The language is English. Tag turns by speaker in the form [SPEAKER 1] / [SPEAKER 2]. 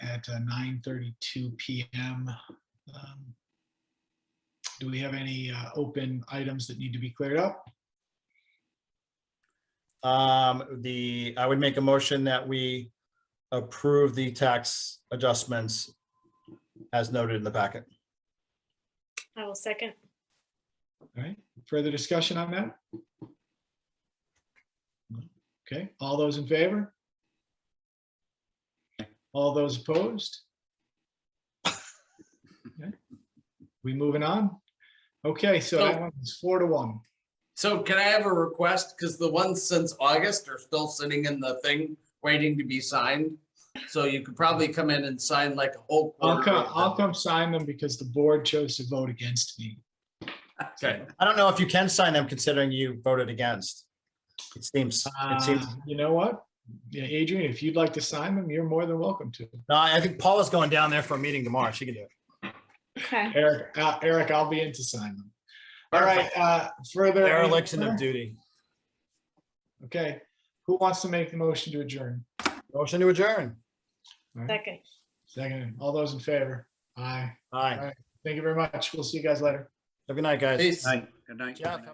[SPEAKER 1] at uh, 9:32 PM. Um, Do we have any uh, open items that need to be cleared up?
[SPEAKER 2] Um, the, I would make a motion that we approve the tax adjustments as noted in the packet.
[SPEAKER 3] I will second.
[SPEAKER 1] All right, further discussion on that? Okay, all those in favor? All those opposed? Okay, We moving on? Okay, so that
[SPEAKER 4] So-
[SPEAKER 1] one is four to one.
[SPEAKER 4] So can I have a request? Because the ones since August are still sitting in the thing, waiting to be signed. So you could probably come in and sign like a whole.
[SPEAKER 1] I'll
[SPEAKER 4] quarter
[SPEAKER 1] come,
[SPEAKER 4] of
[SPEAKER 1] I'll
[SPEAKER 4] them.
[SPEAKER 1] come sign them because the board chose to vote against me.
[SPEAKER 4] Okay,
[SPEAKER 2] I don't know if you can sign them considering you voted against. It seems, it seems,
[SPEAKER 1] Uh, You know what? Yeah, Adrian, if you'd like to sign them, you're more than welcome to.
[SPEAKER 2] no, I think Paula's going down there for a meeting tomorrow. She can do it.
[SPEAKER 3] Okay.
[SPEAKER 1] Eric, uh, Eric, I'll be in to sign them. All right, uh, further.
[SPEAKER 2] Dereliction of duty.
[SPEAKER 1] Okay, who wants to make the motion to adjourn?
[SPEAKER 2] Motion to adjourn.
[SPEAKER 1] All right,
[SPEAKER 3] Second.
[SPEAKER 1] Second, all those in favor? Aye.
[SPEAKER 2] All right.
[SPEAKER 1] Thank you very much. We'll see you guys later.
[SPEAKER 2] Have a good night, guys.
[SPEAKER 4] peace.
[SPEAKER 5] Good night.
[SPEAKER 2] Jeff,